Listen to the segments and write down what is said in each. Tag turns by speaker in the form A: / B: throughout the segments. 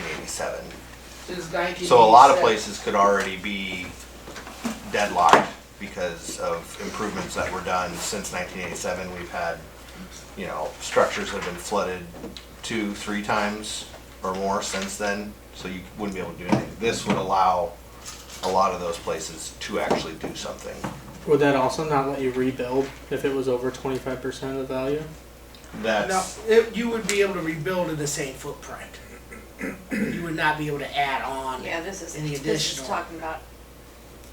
A: 1997.
B: Since nineteen.
A: So a lot of places could already be deadlocked because of improvements that were done since 1987. We've had, you know, structures have been flooded two, three times or more since then, so you wouldn't be able to do anything. This would allow a lot of those places to actually do something.
C: Would that also not let you rebuild if it was over twenty five percent of the value?
B: No,
A: That's,
B: it, you would be able to rebuild in the same footprint. You would not be able to add on.
D: Yeah, this is,
B: Any
D: this
B: additional-
D: is talking about,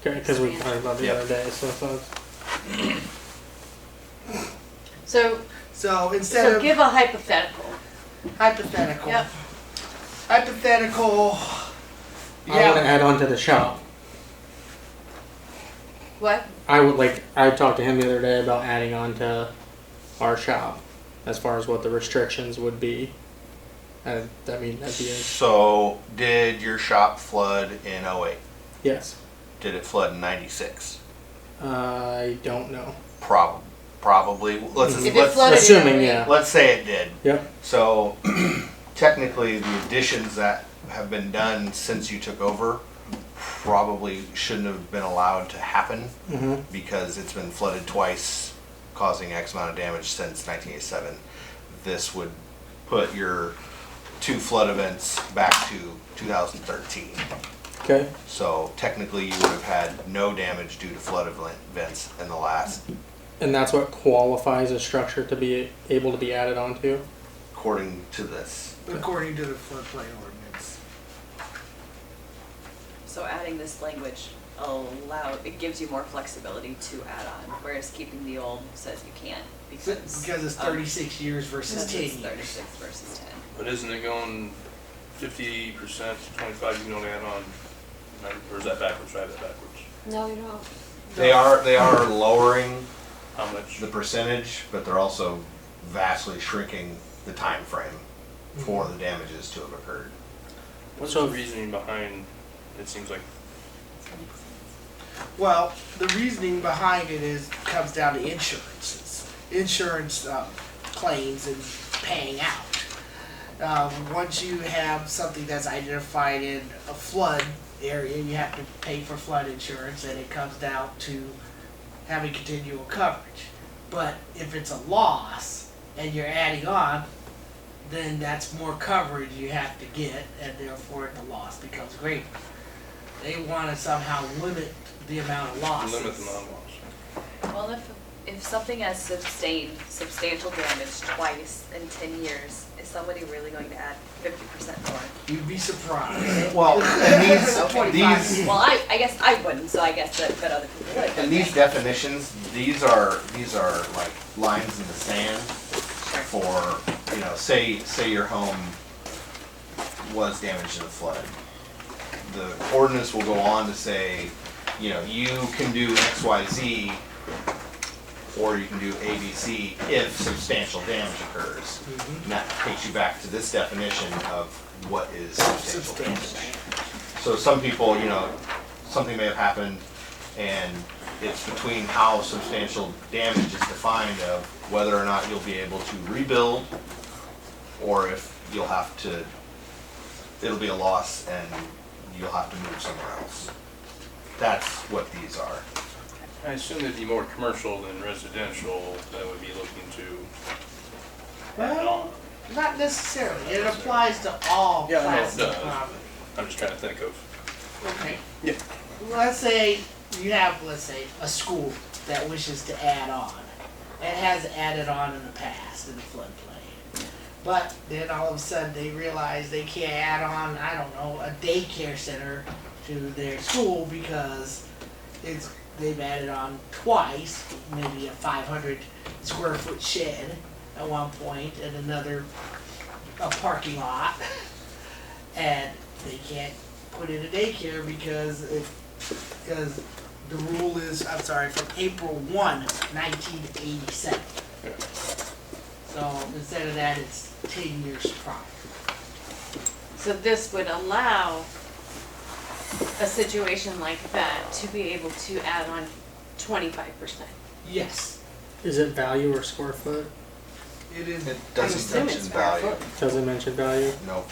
C: Because we talked about the
A: Yep.
C: other day, so I thought
D: so,
B: So instead
D: so
B: of
D: give a hypothetical.
B: hypothetical,
D: Yep.
B: hypothetical,
C: I want to
B: yeah,
C: add on to the shop.
D: What?
C: I would like I talked to him the other day about adding on to our shop as far as what the restrictions would be. I, I mean, that'd be a,
A: so did your shop flood in '08?
C: yes.
A: Did it flood in 96?
C: I don't know.
A: Prob, probably. Let's,
D: If it
A: let's,
D: flooded.
C: Assuming,
D: in-
C: yeah.
A: let's say it did.
C: Yep.
A: So technically, the additions that have been done since you took over probably shouldn't have been allowed to happen
C: Mm-hmm.
A: because it's been flooded twice, causing X amount of damage since 1987. This would put your two flood events back to 2013.
C: Okay.
A: So technically, you would have had no damage due to flood event- events in the last,
C: And that's what qualifies a structure to be able to be added onto.
A: according to this.
B: according to the floodplain ordinance.
E: So adding this language allow, it gives you more flexibility to add on, whereas keeping the old says you can't because.
B: Because it's
E: of-
B: thirty-six years versus
E: Because
B: ten
E: it's
B: years.
E: thirty-six versus ten.
F: But isn't it going fifty percent to twenty-five, you can only add on, nine- or is that backwards, try that backwards?
D: No, you don't.
A: They are they are lowering
F: How much?
A: the percentage, but they're also vastly shrinking the time frame for the damages to have occurred.
F: What's
C: So-
F: the reasoning behind, it seems like,
B: Well, the reasoning behind it is, comes down to insurances, insurance um, claims and paying out. Um, Once you have something that's identified in a flood area, you have to pay for flood insurance, and it comes down to having continual coverage. But if it's a loss and you're adding on, then that's more coverage you have to get, and therefore the loss becomes greater. They want to somehow limit the amount of losses.
F: limit the non-loss.
E: Well, if, if something has sustained substantial damage twice in ten years, is somebody really going to add fifty percent more?
B: You'd be surprised.
A: Well,
E: Okay.
A: and these these
E: Well, I, I guess I wouldn't, so I guess that, but other people would.
A: and these
E: okay.
A: definitions, these are these are like lines in the sand
E: Sure.
A: for you know, say say your home was damaged in a flood. The ordinance will go on to say, you know, you can do X, Y, Z, or you can do A, B, C if substantial damage occurs. And that takes you back to this definition of what is substantial damage.
B: Substantial.
A: So some people, you know, something may have happened and it's between how substantial damage is defined of whether or not you'll be able to rebuild or if you'll have to, it'll be a loss and you'll have to move somewhere else. That's what these are.
F: I assume there'd be more commercial than residential that would be looking to add
B: Well,
F: on.
B: not necessarily. It applies to all
F: Yeah, I know it
B: classes of
F: does.
B: property.
F: I'm just trying to think of,
B: Okay.
F: Yeah.
B: Let's say you have, let's say, a school that wishes to add on and has added on in the past in the floodplain. But then all of a sudden they realize they can't add on, I don't know, a daycare center to their school because it's, they've added on twice, maybe a five hundred square foot shed at one point and another, a parking lot. And they can't put in a daycare because it, because the rule is, I'm sorry, from April 1, 1987.
F: Yeah.
B: So instead of that, it's 10 years prior.
D: So this would allow a situation like that to be able to add on twenty-five percent.
B: Yes,
C: Is it value or square foot?
B: it is.
A: It
D: I'm
A: doesn't
D: assuming
A: mention
D: it's square
A: value.
D: foot.
C: Doesn't mention value.
A: No,